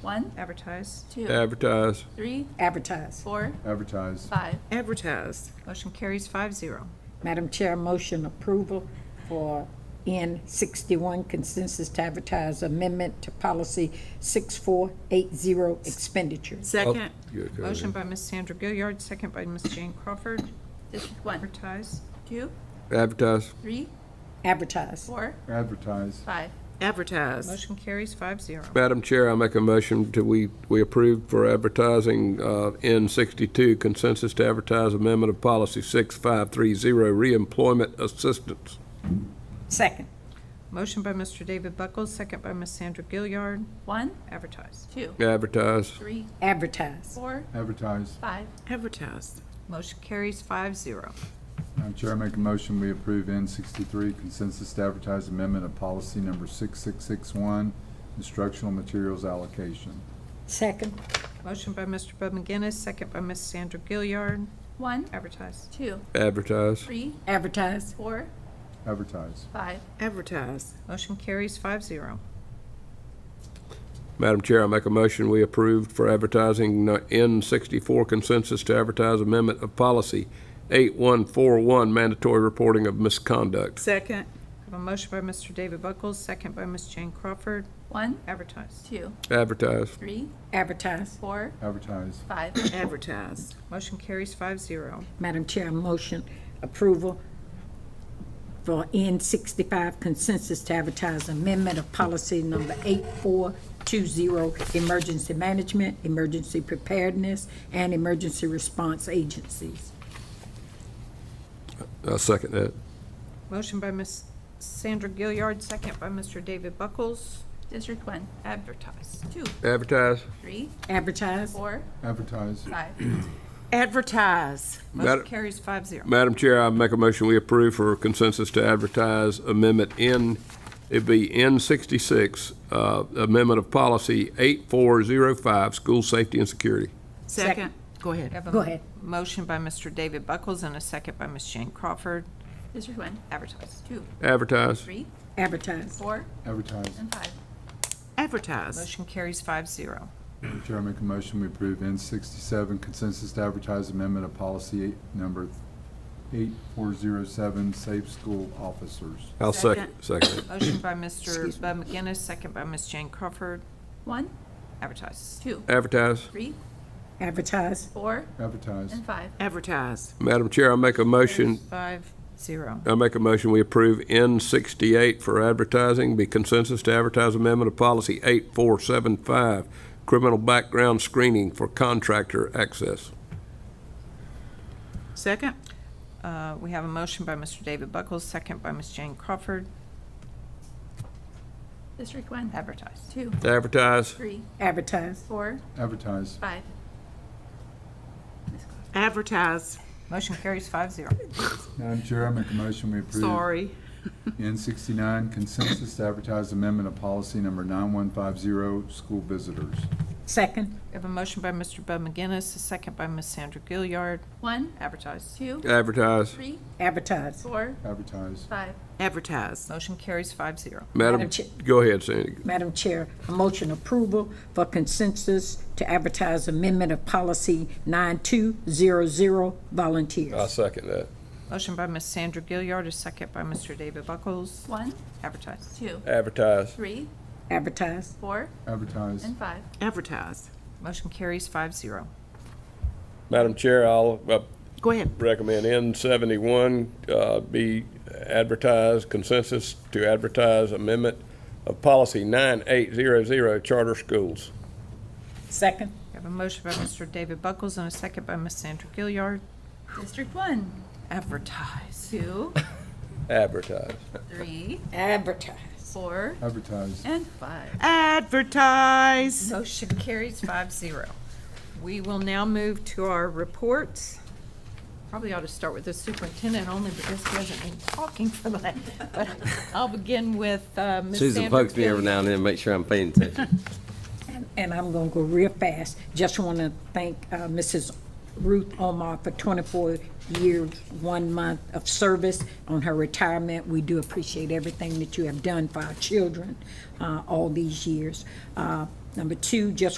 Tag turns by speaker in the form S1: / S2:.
S1: One,
S2: advertise,
S1: two,
S3: advertise,
S1: three,
S4: Advertise.
S1: four,
S5: advertise,
S1: five.
S2: advertise.
S1: Motion carries five zero.
S4: Madam Chair, motion approval for N sixty-one consensus to advertise amendment to policy six-four-eight-zero expenditures.
S3: Oh,
S2: Second.
S3: you're okay.
S2: Motion by Ms. Sandra Gilliard, second by Ms. Jane Crawford,
S1: District one,
S2: advertise,
S1: two,
S3: advertise,
S1: three,
S4: Advertise.
S1: four,
S5: advertise,
S1: five.
S6: advertise,
S2: motion carries five zero.
S3: Madam Chair, I make a motion to, we, we approve for advertising uh, N62 consensus to advertise amendment of policy 6530, reemployment assistance.
S4: Second.
S2: Motion by Mr. David Buckles, second by Ms. Sandra Gilliard,
S1: One,
S2: advertise,
S1: two,
S3: Advertise,
S1: three,
S4: Advertise.
S1: four,
S5: advertise.
S1: five.
S6: advertise,
S2: motion carries five zero.
S5: Madam Chair, I make a motion, we approve N sixty-three consensus to advertise amendment of policy number six-six-six-one, instructional materials allocation.
S4: Second.
S2: Motion by Mr. Bud McGinnis, second by Ms. Sandra Gilliard,
S1: One,
S2: advertise,
S1: two,
S3: advertise,
S1: three,
S4: Advertise.
S1: four,
S5: Advertise,
S1: five.
S6: advertise,
S2: motion carries five zero.
S3: Madam Chair, I make a motion, we approved for advertising N64 consensus to advertise amendment of policy 8141, mandatory reporting of misconduct.
S6: second,
S2: I have a motion by Mr. David Buckles, second by Ms. Jane Crawford,
S1: One,
S2: advertise,
S1: two,
S3: Advertise,
S1: three,
S4: Advertise.
S1: four,
S5: advertise,
S1: five.
S6: advertise,
S2: motion carries five zero.
S4: Madam Chair, motion approval for N sixty-five consensus to advertise amendment of policy number eight-four-two-zero, emergency management, emergency preparedness, and emergency response agencies.
S3: I second that.
S2: Motion by Ms. Sandra Gilliard, second by Mr. David Buckles,
S1: District one,
S2: advertise,
S1: two,
S3: Advertise.
S1: three,
S4: Advertise.
S1: four,
S5: advertise,
S1: five.
S6: advertise,
S2: motion
S3: Madam-
S2: carries five zero.
S3: Madam Chair, I make a motion, we approve for consensus to advertise amendment N, it'd be N sixty-six, uh, amendment of policy eight four zero five, school safety and security.
S6: second. Go ahead.
S4: Go ahead.
S2: Motion by Mr. David Buckles and a second by Ms. Jane Crawford,
S1: District one,
S2: advertise.
S1: two,
S3: Advertise,
S1: three,
S4: Advertise.
S1: four,
S5: advertise.
S1: and five.
S6: Advertise,
S2: Motion carries five zero.
S5: Madam Chair, I make a motion, we approve N sixty-seven consensus to advertise amendment of policy eight- number eight-four-zero-seven, safe school officers.
S3: I'll second, second it.
S2: Motion by Mr. Bud McGinnis, second by Ms. Jane Crawford,
S1: One,
S2: advertise.
S1: two,
S3: Advertise.
S1: three,
S4: Advertise.
S1: four,
S5: Advertise,
S1: and five.
S6: advertise,
S3: Madam Chair, I make a motion,
S2: Five zero.
S3: I make a motion, we approve N sixty-eight for advertising, be consensus to advertise amendment of policy eight four seven five, criminal background screening for contractor access.
S6: second,
S2: Uh, We have a motion by Mr. David Buckles, second by Ms. Jane Crawford,
S1: District one,
S2: advertise.
S1: two,
S3: Advertise,
S1: three,
S4: Advertise.
S1: four,
S5: advertise,
S1: five.
S6: advertise,
S2: Motion carries five zero.
S5: Madam Chair, I make a motion, we approve.
S6: sorry,
S5: N sixty-nine consensus to advertise amendment of policy number nine-one-five-zero, school visitors.
S4: Second.
S2: We have a motion by Mr. Bud McGinnis, a second by Ms. Sandra Gilliard,
S1: One,
S2: advertise.
S1: two,
S3: advertise.
S1: three,
S4: Advertise.
S1: four,
S5: Advertise,
S1: five.
S6: advertise,
S2: Motion carries five zero.
S3: Madam,
S4: Madam Chair.
S3: go ahead, Sandy.
S4: Madam Chair, a motion approval for consensus to advertise amendment of policy 9200
S3: I
S4: volunteers.
S3: second that.
S2: Motion by Ms. Sandra Gilliard, a second by Mr. David Buckles,
S1: One,
S2: advertise.
S1: two,
S3: Advertise.
S1: three,
S4: Advertise.
S1: four,
S5: advertise,
S1: and five.
S6: advertise.
S2: Motion carries five zero.
S3: Madam Chair, I'll uh,
S6: Go ahead,
S3: recommend N seventy-one uh, be advertised, consensus to advertise amendment of policy nine eight zero zero, charter schools.
S4: Second.
S2: We have a motion by Mr. David Buckles and a second by Ms. Sandra Gilliard,
S1: District one,
S2: advertise.
S1: two,
S3: Advertise.
S1: three,
S4: Advertise.
S1: four,
S5: advertise.
S1: and five.
S6: advertise.
S2: Motion carries five zero. We will now move to our reports. Probably ought to start with the superintendent only because he hasn't been talking for the last, but I'll begin with uh, Ms. Sandra.
S7: Susan pokes me every
S2: Gilliard.
S7: now and then, to make sure I'm paying attention.
S4: And I'm going to go real fast. Just want to thank uh, Mrs. Ruth Omar for 24 years, one month of service on her retirement. We do appreciate everything that you have done for our children uh, all these years. Uh, Number two, just